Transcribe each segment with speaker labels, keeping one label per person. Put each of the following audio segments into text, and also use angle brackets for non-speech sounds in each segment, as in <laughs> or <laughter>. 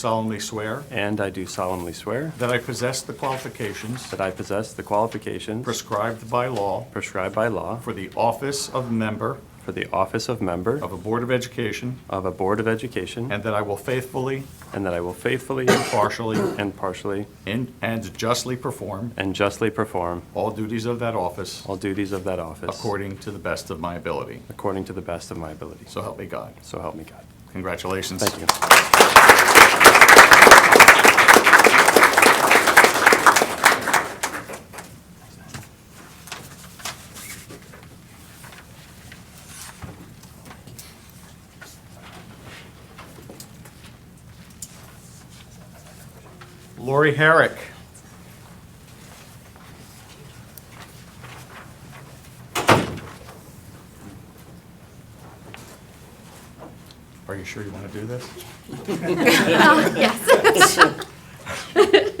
Speaker 1: solemnly swear
Speaker 2: and I do solemnly swear
Speaker 1: that I possess the qualifications
Speaker 2: that I possess the qualifications
Speaker 1: prescribed by law
Speaker 2: prescribed by law
Speaker 1: for the office of member
Speaker 2: for the office of member
Speaker 1: of a Board of Education,
Speaker 2: of a Board of Education,
Speaker 1: Oh. and that I will faithfully,
Speaker 2: and that I will faithfully,
Speaker 1: partially,
Speaker 2: and partially,
Speaker 1: and and justly perform
Speaker 2: and justly perform
Speaker 1: all duties of that office
Speaker 2: all duties of that office
Speaker 1: according to the best of my ability.
Speaker 2: according to the best of my ability.
Speaker 1: So help me God.
Speaker 2: So help me God.
Speaker 1: Congratulations.
Speaker 2: Thank you.
Speaker 1: Lori Herrick. Are you sure you want to do this?
Speaker 3: <laughs> Yes.
Speaker 1: <laughs>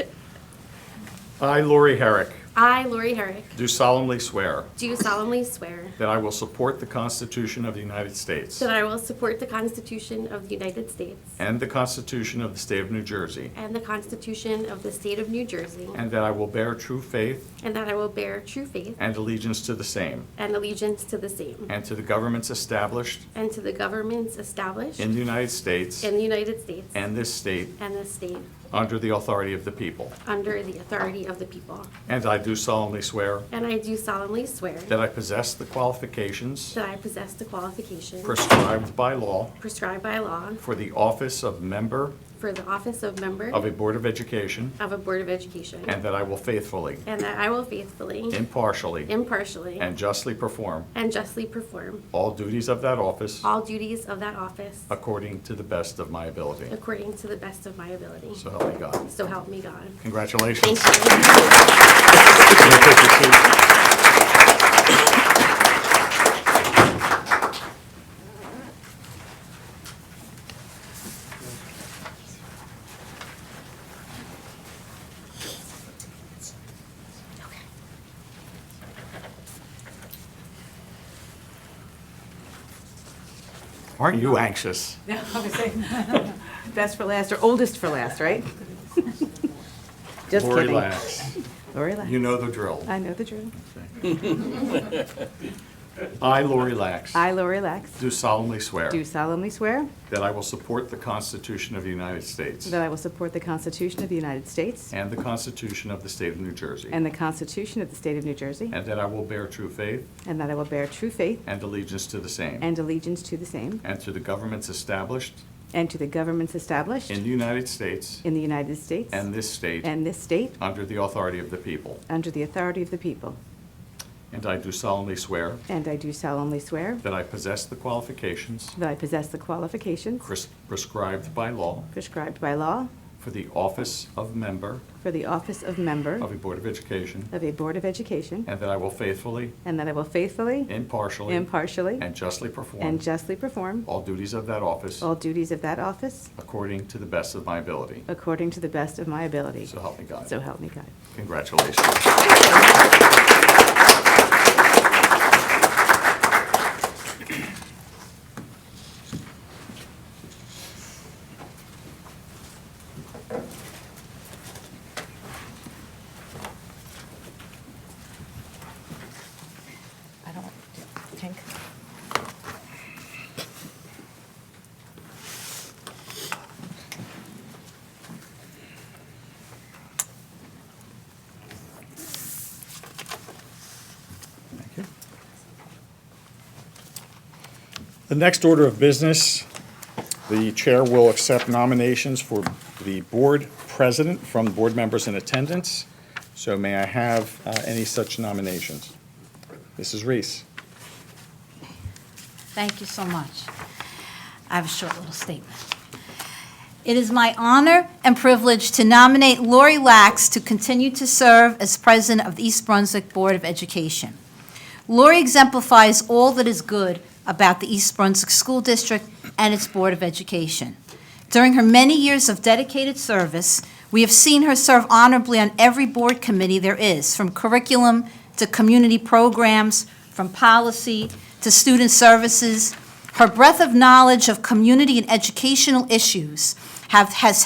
Speaker 1: I, Lori Herrick,
Speaker 3: I, Lori Herrick,
Speaker 1: do solemnly swear
Speaker 3: do solemnly swear
Speaker 1: that I will support the Constitution of the United States
Speaker 3: that I will support the Constitution of the United States
Speaker 1: and the Constitution of the State of New Jersey,
Speaker 3: and the Constitution of the State of New Jersey,
Speaker 1: and that I will bear true faith
Speaker 3: and that I will bear true faith
Speaker 1: and allegiance to the same
Speaker 3: and allegiance to the same,
Speaker 1: and to the governments established
Speaker 3: and to the governments established
Speaker 1: in the United States
Speaker 3: in the United States
Speaker 1: and this state
Speaker 3: and the state
Speaker 1: under the authority of the people.
Speaker 3: under the authority of the people.
Speaker 1: And I do solemnly swear
Speaker 3: And I do solemnly swear
Speaker 1: that I possess the qualifications
Speaker 3: that I possess the qualifications
Speaker 1: prescribed by law
Speaker 3: prescribed by law
Speaker 1: for the office of member
Speaker 3: for the office of member
Speaker 1: of a Board of Education,
Speaker 3: of a Board of Education,
Speaker 1: and that I will faithfully,
Speaker 3: and that I will faithfully,
Speaker 1: impartially,
Speaker 3: impartially,
Speaker 1: and justly perform
Speaker 3: And justly perform
Speaker 1: all duties of that office
Speaker 3: all duties of that office
Speaker 1: according to the best of my ability.
Speaker 3: according to the best of my ability.
Speaker 1: So help me God.
Speaker 3: So help me God.
Speaker 1: Congratulations.
Speaker 3: Thank you.
Speaker 1: Aren't you anxious?
Speaker 4: <laughs> Best for last, or oldest for last, right? Just kidding.
Speaker 1: Lori Lax.
Speaker 4: Lori Lax.
Speaker 1: You know the drill.
Speaker 4: I know the drill.
Speaker 1: <laughs> I, Lori Lax,
Speaker 4: I, Lori Lax,
Speaker 1: do solemnly swear
Speaker 4: do solemnly swear
Speaker 1: that I will support the Constitution of the United States
Speaker 4: that I will support the Constitution of the United States
Speaker 1: and the Constitution of the State of New Jersey,
Speaker 4: and the Constitution of the State of New Jersey,
Speaker 1: and that I will bear true faith
Speaker 4: and that I will bear true faith
Speaker 1: and allegiance to the same,
Speaker 4: and allegiance to the same,
Speaker 1: and to the governments established
Speaker 4: and to the governments established
Speaker 1: in the United States
Speaker 4: in the United States
Speaker 1: and this state
Speaker 4: and this state,
Speaker 1: under the authority of the people.
Speaker 4: under the authority of the people.
Speaker 1: And I do solemnly swear
Speaker 4: And I do solemnly swear
Speaker 1: that I possess the qualifications
Speaker 4: that I possess the qualifications
Speaker 1: pres- prescribed by law
Speaker 4: prescribed by law
Speaker 1: for the office of member
Speaker 4: for the office of member
Speaker 1: of a Board of Education,
Speaker 4: of a Board of Education,
Speaker 1: and that I will faithfully,
Speaker 4: and that I will faithfully,
Speaker 1: impartially,
Speaker 4: impartially,
Speaker 1: and justly perform
Speaker 4: And justly perform
Speaker 1: all duties of that office
Speaker 4: all duties of that office
Speaker 1: according to the best of my ability.
Speaker 4: according to the best of my ability.
Speaker 1: So help me God.
Speaker 4: So help me God.
Speaker 1: Congratulations.
Speaker 5: I don't think.
Speaker 1: The next order of business, the chair will accept nominations for the board president from board members in attendance. So may I have uh, any such nominations? Mrs. Reese.
Speaker 5: Thank you so much. I have a short little statement. It is my honor and privilege to nominate Lori Lax to continue to serve as president of the East Brunswick Board of Education. Lori exemplifies all that is good about the East Brunswick School District and its Board of Education. During her many years of dedicated service, we have seen her serve honorably on every board committee there is, from curriculum to community programs, from policy to student services. Her breadth of knowledge of community and educational issues have, has